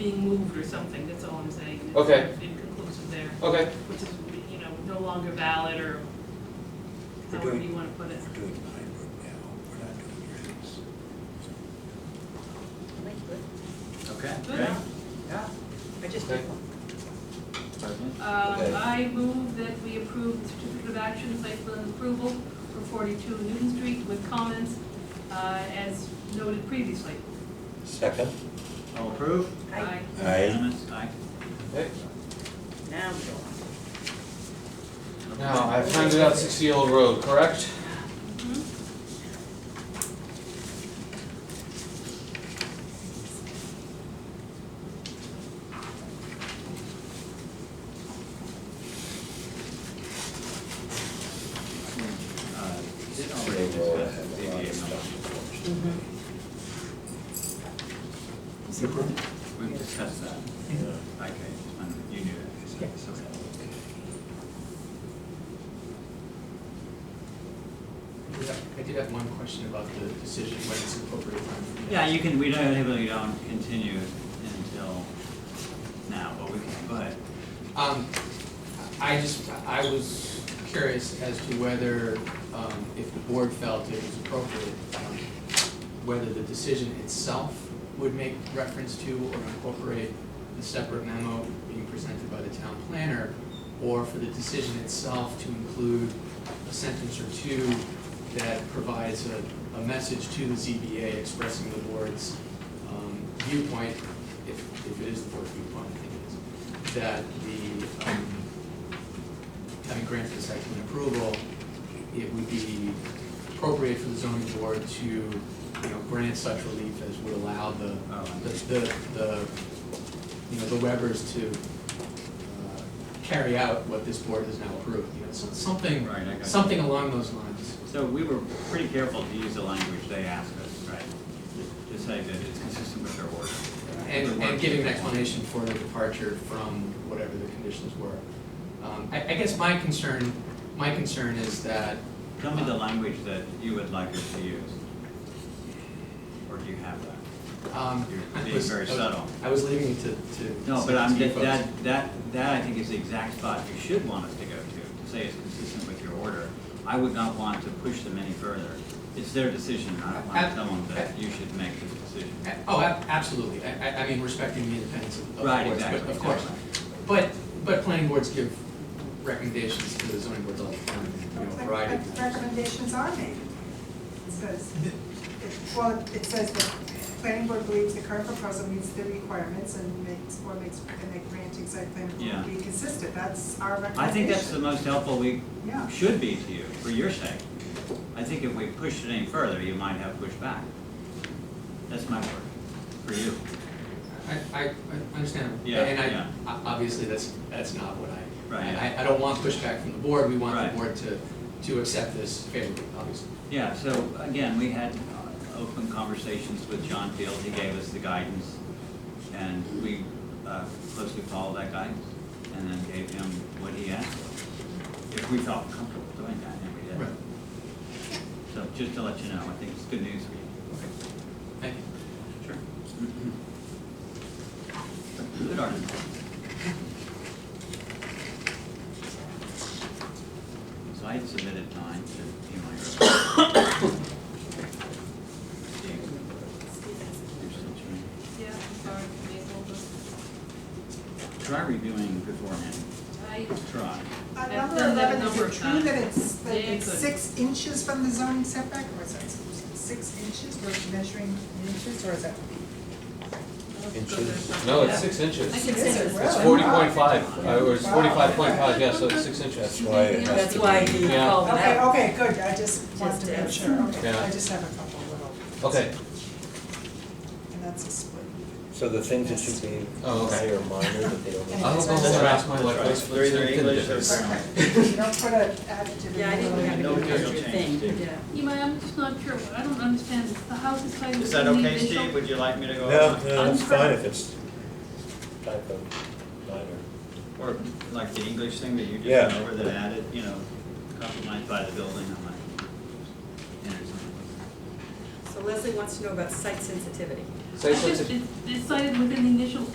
something, that's all I'm saying. It's Okay. Inconclusive there, Okay, which is, you know, no longer valid or We're however doing- you wanna put it. We're doing Pine Brook now, we're not doing your house. Okay. Good. great. Yeah, I just Okay. did one. Pardon? Um, Okay. I move that we approve the certificate of action, site plan approval for forty-two Newton Street with comments, uh, as noted previously. Second? All approve? I, Aye. Unanimous? Aye. okay. now I'm going. Now, Uh, I found out sixty-year-old road, correct? Mhm. Uh, Did Oh, already discuss the ZBA motion. Mm-hmm. We've discussed that. Okay, just wondering, you knew that. Yes. I did have one question about the decision, when it's appropriate time for the Yeah, you can, we don't, we don't continue until now, but we can, go ahead. Um, I just, I was curious as to whether, um, if the board felt it was appropriate, um, whether the decision itself would make reference to or incorporate the separate memo being presented by the town planner, or for the decision itself to include a sentence or two that provides a, a message to the ZBA expressing the board's, um, viewpoint, if, if it is the board's viewpoint, I think it is that the, um, having granted the site plan approval, it would be appropriate for the zoning board to, you know, grant such relief as would allow the, Oh, the, the, the, you know, the Webbers to, uh, carry out what this board has now approved, you know, so- something, Right, I got you. something along those lines. So we were pretty careful to use the language they asked us, right? To say that it's consistent with their order. And, and giving an explanation for the departure from whatever the conditions were. Um, I, I guess my concern, my concern is that Tell me the language that you would like us to use. Or do you have that? Um, You're I being was- very I was- subtle. I was leaving it to, to. No, but I'm, to you that, folks. that, that, that I think is the exact spot you should want us to go to, to say it's consistent with your order. I would not want to push them any further. It's their decision, I don't want to tell them that you should make this decision. A- Oh, ab- absolutely, I, I, I mean, respecting the independence of, of the Right, boards, exactly. but of course. exactly. But, but planning boards give recommendations to the zoning boards all the time, you know, a variety of times. Recommendations are made. It says, it- well, it says that planning board believes the current proposal meets the requirements and makes, or makes, and make granting site plan Yeah. approval be consistent. That's our recommendation. I think that's the most helpful we Yeah. should be to you, for your sake. I think if we pushed it any further, you might have pushback. That's my word, for you. I, I, I understand. Yeah, And I, yeah. o- obviously, that's, that's not what I, Right, yeah. I, I don't want pushback from the board, we want Right. the board to, to accept this favorably, obviously. Yeah, so again, we had uh, open conversations with John Field, he gave us the guidance, and we uh, closely followed that guidance, and then gave him what he asked for. If we felt comfortable doing that, and we Right. did. So just to let you know, I think it's good news for you. Thank you. Sure. Good article. So I submitted mine to Eli. Yeah, I'm sorry, Maple, Try reviewing beforehand, but I, try. Uh, I've Number done that a eleven, is number it of true times. that it's, that Yeah, it's good. six inches from the zoning setback, or is that six inches, we're measuring inches, or is that? Inches. No, it's six inches. I It's can Is it sense really? forty point five, or it's forty-five point five, yeah, so it's six That's inches. why it has That's to why be- you Yeah. called it Okay, out. okay, good, I just wanted to make Just sure, okay, Yeah. I just have a couple little, Okay, and that's a split. So the things that should be Oh, okay. minor, minor, that they don't. I hope I That's will right. ask my wife, That's right. what's, They're what's either in English or this? Perfect. You don't put an adjective in. Yeah, I didn't the- have No any material extra change, thing, Steve. yeah. Imai, I'm just not sure, I don't understand, the house is titled. Is that okay, Steve? Would you like me to go? No, on? no, that's fine if it's type of minor. Or like the English thing that you just Yeah. went over that added, you know, compromised by the building, I might enter something. So Leslie wants to know about site sensitivity. Say It's just, something. it's it's cited within the initial